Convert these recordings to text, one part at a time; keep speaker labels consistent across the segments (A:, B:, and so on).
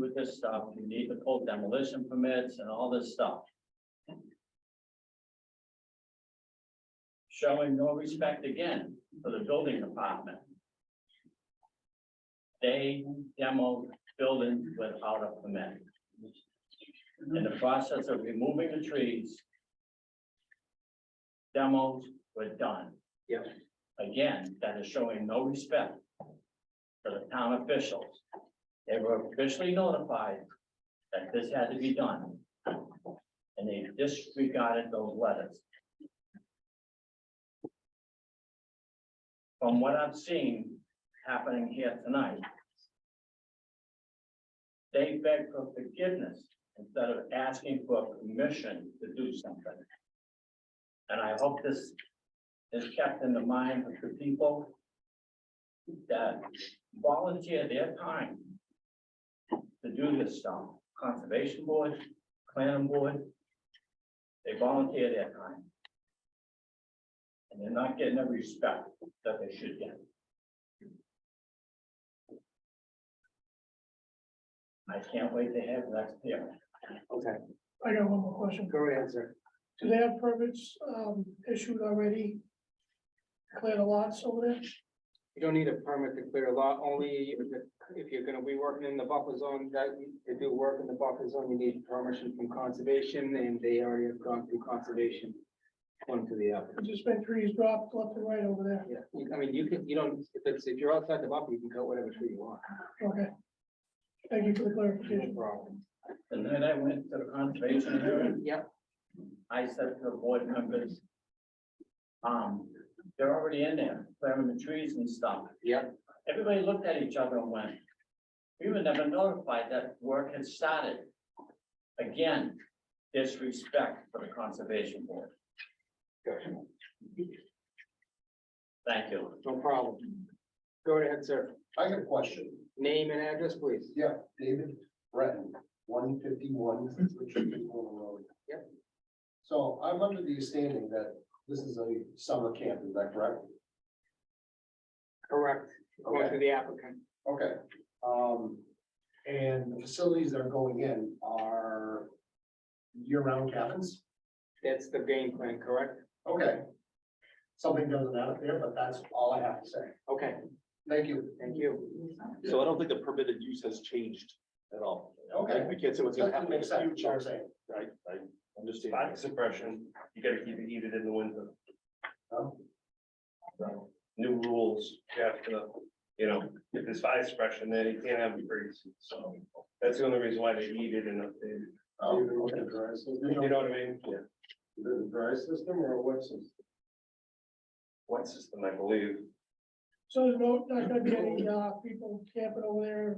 A: with this stuff, you need the full demolition permits and all this stuff. Showing no respect again for the building department. They demoed buildings without a permit. In the process of removing the trees. Demos were done.
B: Yep.
A: Again, that is showing no respect for the town officials. They were officially notified that this had to be done. And they disregarded those letters. From what I've seen happening here tonight. They beg for forgiveness instead of asking for permission to do something. And I hope this is kept in the mind of the people that volunteer their time to do this stuff, conservation board, planning board. They volunteer their time. And they're not getting the respect that they should get. I can't wait to have next year.
B: Okay,
C: I got one more question.
B: go ahead, sir.
C: Do they have permits um issued already? Clear the lots over there?
B: You don't need a permit to clear a lot, only if you're gonna be working in the buffer zone, that, to do work in the buffer zone, you need permission from conservation, and they already have gone through conservation. One to the other.
C: There's just been trees dropped left and right over there.
B: Yeah, you- I mean, you can, you don't, if it's, if you're outside the buffer, you can cut whatever tree you want,
C: Okay. Thank you for the
B: no
C: clarification.
B: problem.
A: The night I went to the conservation hearing,
B: Yeah,
A: I said to the board members, um, they're already in there, clearing the trees and stuff.
B: yeah,
A: Everybody looked at each other and went, we were never notified that work had started. Again, disrespect for the conservation board.
B: gotcha.
A: Thank you.
B: no problem. Go ahead, sir,
D: I got a question.
B: name and address, please.
D: Yeah, David Breton, one fifty-one Richard Lee Corner Road.
B: Yep.
D: So I'm under the understanding that this is a summer camp, is that correct?
B: Correct, going
D: Okay,
B: to the applicant.
D: okay. Um, and the facilities that are going in are year-round cabins?
B: That's the game plan, correct?
D: Okay. Something doesn't add up there, but that's all I have to say.
B: Okay,
D: Thank you.
B: thank you.
E: So I don't think the permitted use has changed at all. I
D: Okay.
E: I can't say what's gonna
D: That
E: happen in
D: makes
E: the
D: sense, what I'm
E: future.
D: saying.
E: I, I understand.
F: Sonic suppression, you gotta keep it heated in the winter.
D: Oh.
F: New rules, you have to, you know, if there's fire suppression, then you can't have a breeze, so that's the only reason why they heat it and updated.
D: Oh, okay, dry system.
F: You know what I mean? Yeah.
D: Is it a dry system or a wet system?
F: One system, I believe.
C: So there's no, not gonna be any uh people camping over there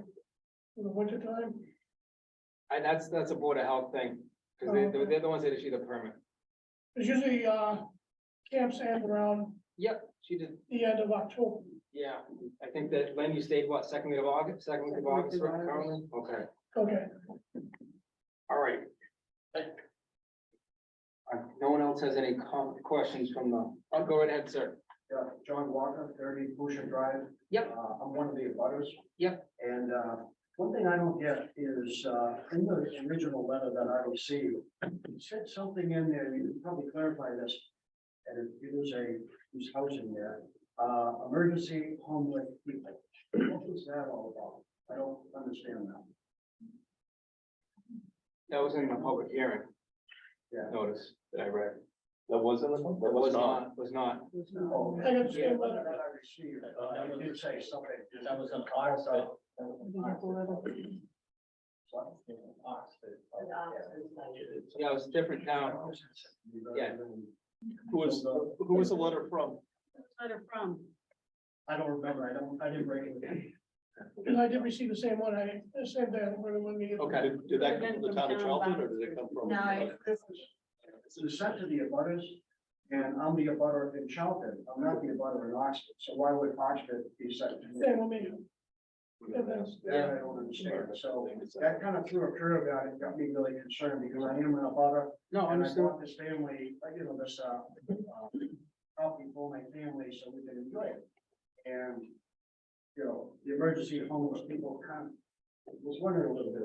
C: in the winter time?
B: And that's, that's a board of health thing, because they, they're- they're the ones that issue the permit.
C: There's usually uh camps and around
B: Yep, she did,
C: the end of October.
B: yeah, I think that, Len, you stayed what, second week of August, second week of August, right, currently? Okay,
C: Okay.
B: all right. Uh, No one else has any com- questions from the, I'll Oh, go right ahead, sir.
D: Yeah, John Walker, thirty Busher Drive.
B: Yep.
D: Uh, I'm one of the abutters.
B: Yep.
D: And, uh, one thing I don't get is, uh, in the original letter that I received, it said something in there, you can probably clarify this. And it was a, who's housing there, uh, emergency homeless people. What was that all about? I don't understand that.
B: That was in the public hearing.
D: Yeah.
B: Notice that I read.
E: That wasn't, that
B: That was
E: was not.
B: not, was not.
D: Oh,
C: I got the
B: Yeah,
C: same
D: Letter
C: letter.
D: that I received, uh, it did say something.
A: That was an Oxford.
B: Yeah, it was different now.
D: uh,
B: Yeah.
E: Who was, who was the letter from?
G: letter from,
D: I don't remember, I don't, I didn't bring it.
C: And I did receive the same one. I, the same day, when it went me.
B: Okay,
E: Did- Did that come from the town of Charlton or did it come from?
G: no, it's this
D: It was sent to the abutters, and I'm the abutter in Charlton, I'm not the abutter in Oxford, so why would Oxford be sent to me?
C: Same with me.
D: That I don't understand, so that kind of threw a curve out, it got me really concerned, because I am an abutter,
B: no,
D: and I
B: understood.
D: bought this family, uh, you know, this, uh, uh, property for my family, so we can enjoy it. And, you know, the emergency homeless people kind of, was wondering a little bit